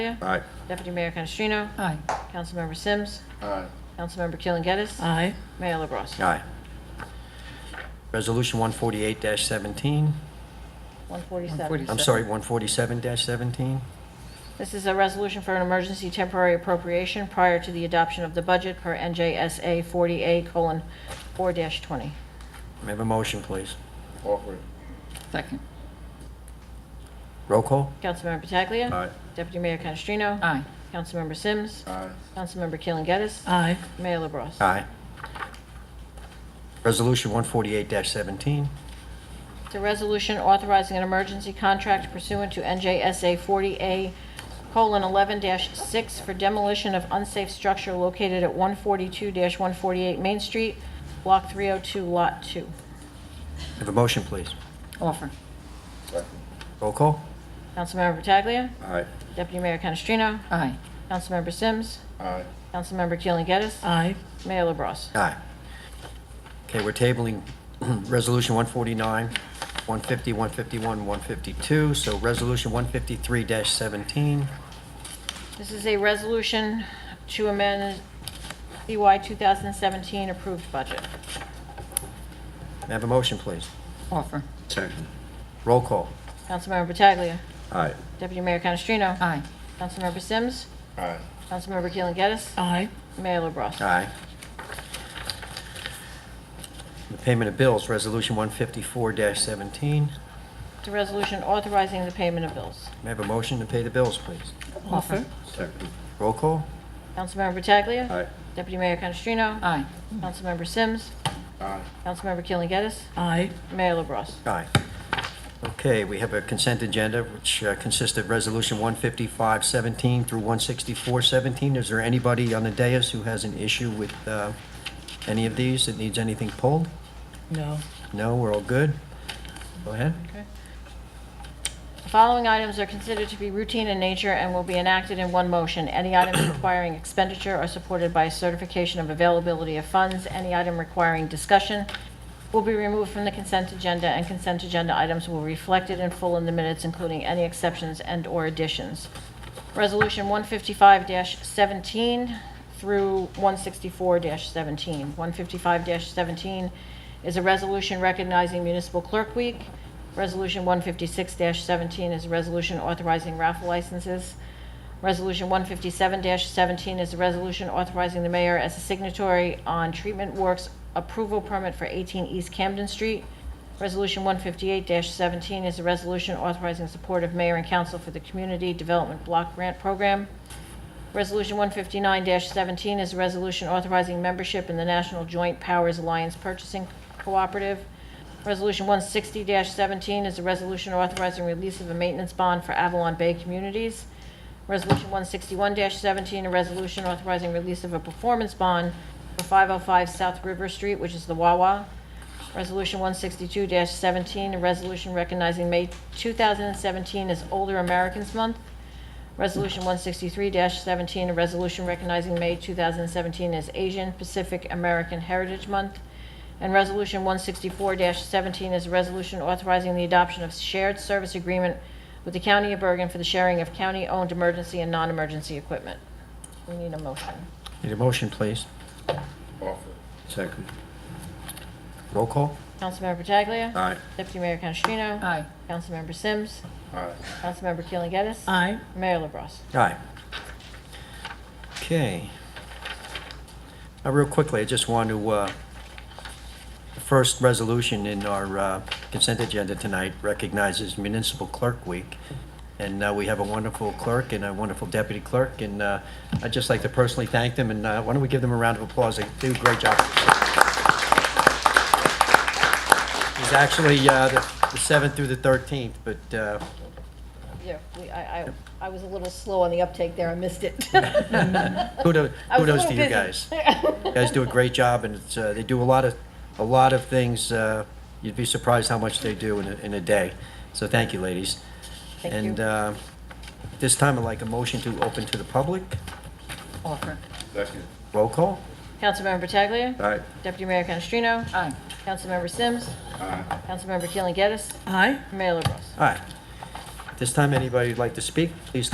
Aye. Deputy Mayor Canestrino, Aye. Councilmember Sims, Aye. Councilmember Keeling Geddes, Aye. Mayor LaBrus. Aye. Resolution 148-17, 147. I'm sorry, 147-17. This is a resolution for an emergency temporary appropriation prior to the adoption of the budget per NJSA 40A:4-20. May I have a motion, please? Offer it. Second. Roll call? Councilmember Pataglia. Aye. Deputy Mayor Canestrino. Aye. Councilmember Sims. Aye. Councilmember Keeling Geddes. Aye. Mayor LaBrus. Aye. Resolution 148-17, It's a resolution authorizing an emergency contract pursuant to NJSA 40A:11-6 for demolition of unsafe structure located at 142-148 Main Street, Block 302, Lot 2. May I have a motion, please? Offer. Second. Roll call? Councilmember Pataglia. Aye. Deputy Mayor Canestrino. Aye. Councilmember Sims. Aye. Councilmember Keeling Geddes. Aye. Mayor LaBrus. Aye. Okay, we're tabling Resolution 149, 150, 151, 152, so Resolution 153-17. This is a resolution to amend E CY 2017 approved budget. May I have a motion, please? Offer. Second. Roll call? Councilmember Pataglia. Aye. Deputy Mayor Canestrino. Aye. Councilmember Sims. Aye. Councilmember Keeling Geddes. Aye. Mayor LaBrus. Aye. The payment of bills, Resolution 154-17. May It's a resolution authorizing the payment of bills. I have a motion to pay the bills, please? Offer. Second. Roll call? Councilmember Pataglia. Aye. Deputy Mayor Canestrino. Aye. Councilmember Sims. Aye. Councilmember Keeling Geddes. Aye. Mayor LaBrus. Aye. Okay, we have a consent agenda which uh, consists of Resolution 155-17 through 164-17. Is there anybody on the dais who has an issue with uh, any of these that needs anything pulled? No. No, we're all good? Go ahead. The following items are considered to be routine in nature and will be enacted in one motion. Any items requiring expenditure are supported by a certification of availability of funds. Any item requiring discussion will be removed from the consent agenda, and consent agenda items will be reflected in full in the minutes, including any exceptions and/or additions. Resolution 155-17 through 164-17. 155-17 is a resolution recognizing Municipal Clerk Week. Resolution 156-17 is a resolution authorizing raffle licenses. Resolution 157-17 is a resolution authorizing the mayor as a signatory on treatment works approval permit for 18 East Camden Street. Resolution 158-17 is a resolution authorizing support of mayor and council for the Community Development Block Grant Program. Resolution 159-17 is a resolution authorizing membership in the National Joint Powers Alliance Purchasing Cooperative. Resolution 160-17 is a resolution authorizing release of a maintenance bond for Avalon Bay Communities. Resolution 161-17, a resolution authorizing release of a performance bond for 505 South River Street, which is the Wawa. Resolution 162-17, a resolution recognizing May 2017 as Older Americans Month. Resolution 163-17, a resolution recognizing May 2017 as Asian Pacific American Heritage Month. And Resolution 164-17 is a resolution authorizing the adoption of shared service agreement with the County of Bergen for the sharing of county-owned emergency and non-emergency equipment. We need a motion. Need a motion, please? Offer it. Second. Roll call? Councilmember Pataglia. Aye. Deputy Mayor Canestrino. Aye. Councilmember Sims. Aye. Councilmember Keeling Geddes. Aye. Mayor LaBrus. Aye. Okay. Now, real quickly, I just want to, uh, the first resolution in our uh, consent agenda tonight recognizes Municipal Clerk Week. And uh, we have a wonderful clerk and a wonderful deputy clerk, and uh, I'd just like to personally thank them, and uh, why don't we give them a round of applause? They do a great job. He's actually uh, the the 7th through the 13th, but uh, Yeah, we- I, I, I was a little slow on the uptake there, I missed it. kudos I was a kudos little to you busy. guys. You guys do a great job, and it's, uh, they do a lot of, a lot of things. uh, You'd be surprised how much they do in a, in a day. So thank you, ladies. Thank And you. uh, at this time, I'd like a motion to open to the public. Offer. Second. Roll call? Councilmember Pataglia. Aye. Deputy Mayor Canestrino. Aye. Councilmember Sims. Aye. Councilmember Keeling Geddes. Aye. Mayor LaBrus. Aye. At this time, anybody who'd like to speak, please